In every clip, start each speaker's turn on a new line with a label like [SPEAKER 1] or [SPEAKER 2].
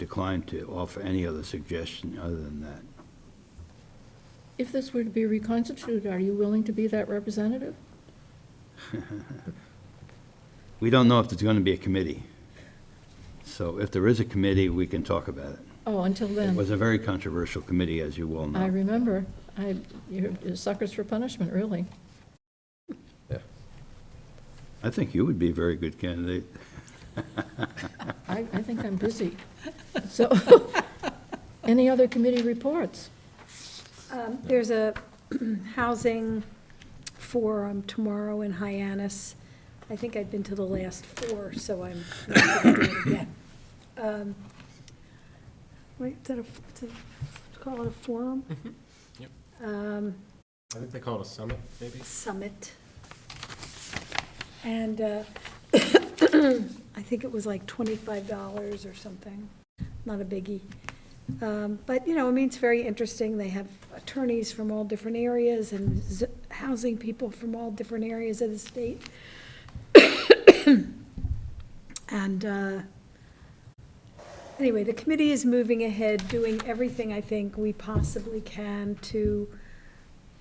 [SPEAKER 1] declined to offer any other suggestion other than that.
[SPEAKER 2] If this were to be reconstituted, are you willing to be that representative?
[SPEAKER 1] We don't know if there's going to be a committee. So if there is a committee, we can talk about it.
[SPEAKER 2] Oh, until
[SPEAKER 1] It
[SPEAKER 2] then,
[SPEAKER 1] was a very controversial committee, as you well know.
[SPEAKER 2] I remember, I, you're suckers for punishment, really.
[SPEAKER 1] I think you would be a very good candidate.
[SPEAKER 2] I, I think I'm busy. So, any other committee reports?
[SPEAKER 3] Um, There's a housing forum tomorrow in Hyannis. I think I've been to the last four, so I'm not going to do it again. Um, Wait, is that a, is it- call it a forum?
[SPEAKER 4] Yep.
[SPEAKER 3] Um,
[SPEAKER 4] I think they call it a summit, maybe?
[SPEAKER 3] Summit. And uh, I think it was like $25 or something, not a biggie. Um, But, you know, I mean, it's very interesting. They have attorneys from all different areas and z- housing people from all different areas of the state. And uh, anyway, the committee is moving ahead, doing everything I think we possibly can to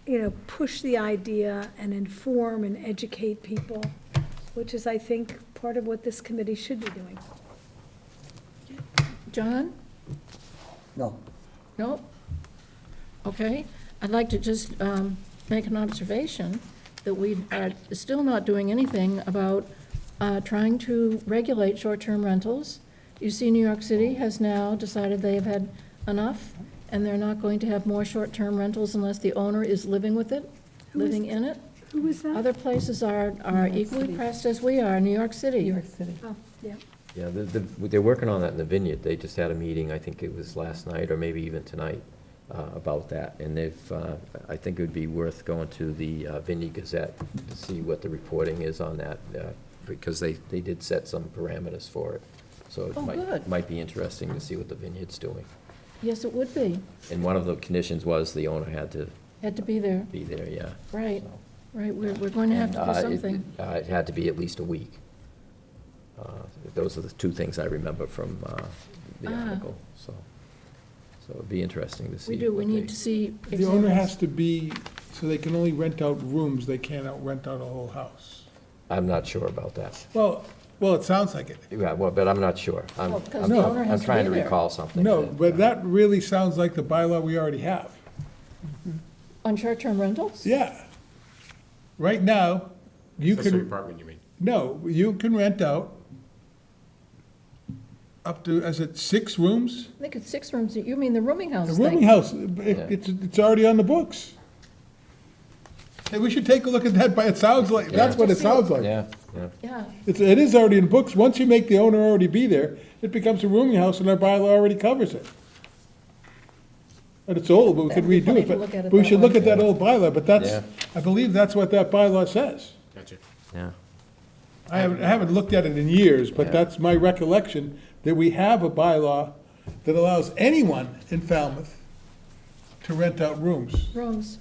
[SPEAKER 3] you know, push the idea and inform and educate people, which is, I think, part of what this committee should be doing.
[SPEAKER 2] John?
[SPEAKER 5] No.
[SPEAKER 2] No? Okay, I'd like to just um, make an observation that we are still not doing anything about uh, trying to regulate short-term rentals. You see, New York City has now decided they have had enough, and they're not going to have more short-term rentals unless the owner is living with it,
[SPEAKER 3] Who is-
[SPEAKER 2] living in it.
[SPEAKER 3] Who was that?
[SPEAKER 2] Other places are, are
[SPEAKER 6] New York
[SPEAKER 2] equally
[SPEAKER 6] City.
[SPEAKER 2] pressed as we are, New York City.
[SPEAKER 6] New York City.
[SPEAKER 3] Oh, yeah.
[SPEAKER 7] Yeah, the- the- they're working on that in the vineyard. They just had a meeting, I think it was last night or maybe even tonight, uh, about that. And they've, uh, I think it would be worth going to the uh, Vineyard Gazette to see what the reporting is on that, uh, because they, they did set some parameters for it. So it
[SPEAKER 2] Oh,
[SPEAKER 7] might,
[SPEAKER 2] good.
[SPEAKER 7] might be interesting to see what the vineyard's doing.
[SPEAKER 2] Yes, it would be.
[SPEAKER 7] And one of the conditions was the owner had to
[SPEAKER 2] Had to be there.
[SPEAKER 7] be there, yeah.
[SPEAKER 2] Right, right, we're, we're going to have to
[SPEAKER 7] Uh,
[SPEAKER 2] do
[SPEAKER 7] it-
[SPEAKER 2] something.
[SPEAKER 7] uh, It had to be at least a week. Uh, Those are the two things I remember from uh, the
[SPEAKER 2] Ah.
[SPEAKER 7] article, so, so it'd be interesting to see.
[SPEAKER 2] We do, we
[SPEAKER 7] what
[SPEAKER 2] need
[SPEAKER 7] they-
[SPEAKER 2] to see.
[SPEAKER 8] The owner
[SPEAKER 2] examples.
[SPEAKER 8] has to be, so they can only rent out rooms, they can't out, rent out a whole house.
[SPEAKER 7] I'm not sure about that.
[SPEAKER 8] Well, well, it sounds like it.
[SPEAKER 7] Yeah, well, but I'm not sure. I'm,
[SPEAKER 2] Well, 'cause
[SPEAKER 7] I'm-
[SPEAKER 8] the
[SPEAKER 7] I'm-
[SPEAKER 2] owner has
[SPEAKER 7] I'm
[SPEAKER 2] to be
[SPEAKER 7] trying to
[SPEAKER 2] there.
[SPEAKER 7] recall something.
[SPEAKER 8] No, but that really sounds like the bylaw we already have.
[SPEAKER 2] On short-term rentals?
[SPEAKER 8] Yeah. Right now, you
[SPEAKER 4] Accessory
[SPEAKER 8] can,
[SPEAKER 4] apartment, you mean?
[SPEAKER 8] no, you can rent out up to, is it six rooms?
[SPEAKER 2] I think it's six rooms, you mean the rooming house
[SPEAKER 8] A
[SPEAKER 2] thing?
[SPEAKER 8] rooming house, it- it's, it's already on the books. Hey, we should take a look at that, but it sounds like, that's what it sounds like.
[SPEAKER 7] Yeah, yeah.
[SPEAKER 2] Yeah,
[SPEAKER 8] It's, it is already in books. Once you make the owner already be there, it becomes a rooming house and our bylaw already covers it. And it's old, but we could
[SPEAKER 2] That'd be
[SPEAKER 8] redo
[SPEAKER 2] funny
[SPEAKER 8] it,
[SPEAKER 2] to look at
[SPEAKER 8] but
[SPEAKER 2] it
[SPEAKER 8] but we
[SPEAKER 2] that
[SPEAKER 8] should
[SPEAKER 2] way.
[SPEAKER 8] look at that old bylaw, but that's,
[SPEAKER 7] Yeah.
[SPEAKER 8] I believe that's what that bylaw says.
[SPEAKER 4] Gotcha.
[SPEAKER 7] Yeah.
[SPEAKER 8] I haven't, I haven't looked at it in years, but
[SPEAKER 7] Yeah.
[SPEAKER 8] that's my recollection, that we have a bylaw that allows anyone in Falmouth to rent out rooms.
[SPEAKER 2] rooms.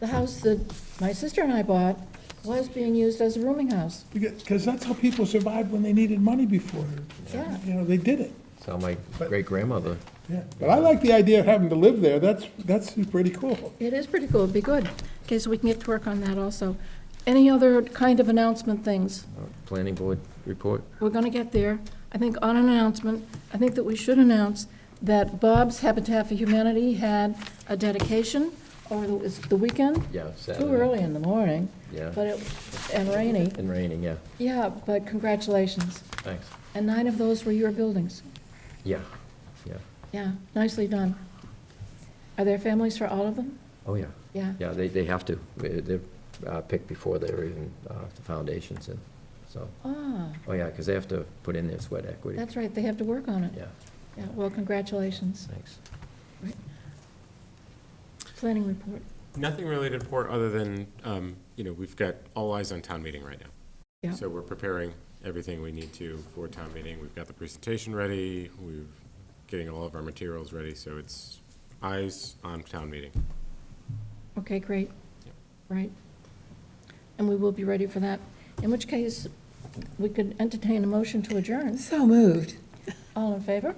[SPEAKER 2] The house that my sister and I bought was being used as a rooming house,
[SPEAKER 8] Because that's how people survived when they needed money before.
[SPEAKER 2] Yeah.
[SPEAKER 8] You know, they did it.
[SPEAKER 7] So my
[SPEAKER 8] But-
[SPEAKER 7] great-grandmother,
[SPEAKER 8] Yeah, but I like the idea of having to live there, that's, that's pretty cool.
[SPEAKER 2] It is pretty cool, it'd be good. Okay, so we can get to work on that also. Any other kind of announcement things?
[SPEAKER 7] uh, planning board report.
[SPEAKER 2] We're going to get there. I think on an announcement, I think that we should announce that Bob's Habitat for Humanity had a dedication over the, it's the weekend.
[SPEAKER 7] Yeah,
[SPEAKER 2] Too
[SPEAKER 7] Saturday.
[SPEAKER 2] early in the morning.
[SPEAKER 7] Yeah.
[SPEAKER 2] But it, and rainy.
[SPEAKER 7] And raining, yeah,
[SPEAKER 2] Yeah, but congratulations.
[SPEAKER 7] thanks.
[SPEAKER 2] And nine of those were your buildings.
[SPEAKER 7] Yeah, yeah,
[SPEAKER 2] Yeah, nicely done. Are there families for all of them?
[SPEAKER 7] oh, yeah.
[SPEAKER 2] Yeah.
[SPEAKER 7] Yeah, they, they have to. Uh, They're uh, picked before they're even, uh, the foundation's in, so.
[SPEAKER 2] Ah,
[SPEAKER 7] Oh, yeah, because they have to put in their sweat equity.
[SPEAKER 2] that's right, they have to work on it.
[SPEAKER 7] Yeah,
[SPEAKER 2] Yeah, well, congratulations.
[SPEAKER 7] thanks.
[SPEAKER 2] Planning report.
[SPEAKER 4] Nothing related to port, other than, um, you know, we've got all eyes on town meeting right now.
[SPEAKER 2] Yeah.
[SPEAKER 4] So we're preparing everything we need to for town meeting. We've got the presentation ready, we're getting all of our materials ready, so it's eyes on town meeting.
[SPEAKER 2] Okay, great.
[SPEAKER 4] Yep.
[SPEAKER 2] Right. And we will be ready for that. In which case, we could entertain a motion to adjourn.
[SPEAKER 6] So moved.
[SPEAKER 2] All in favor?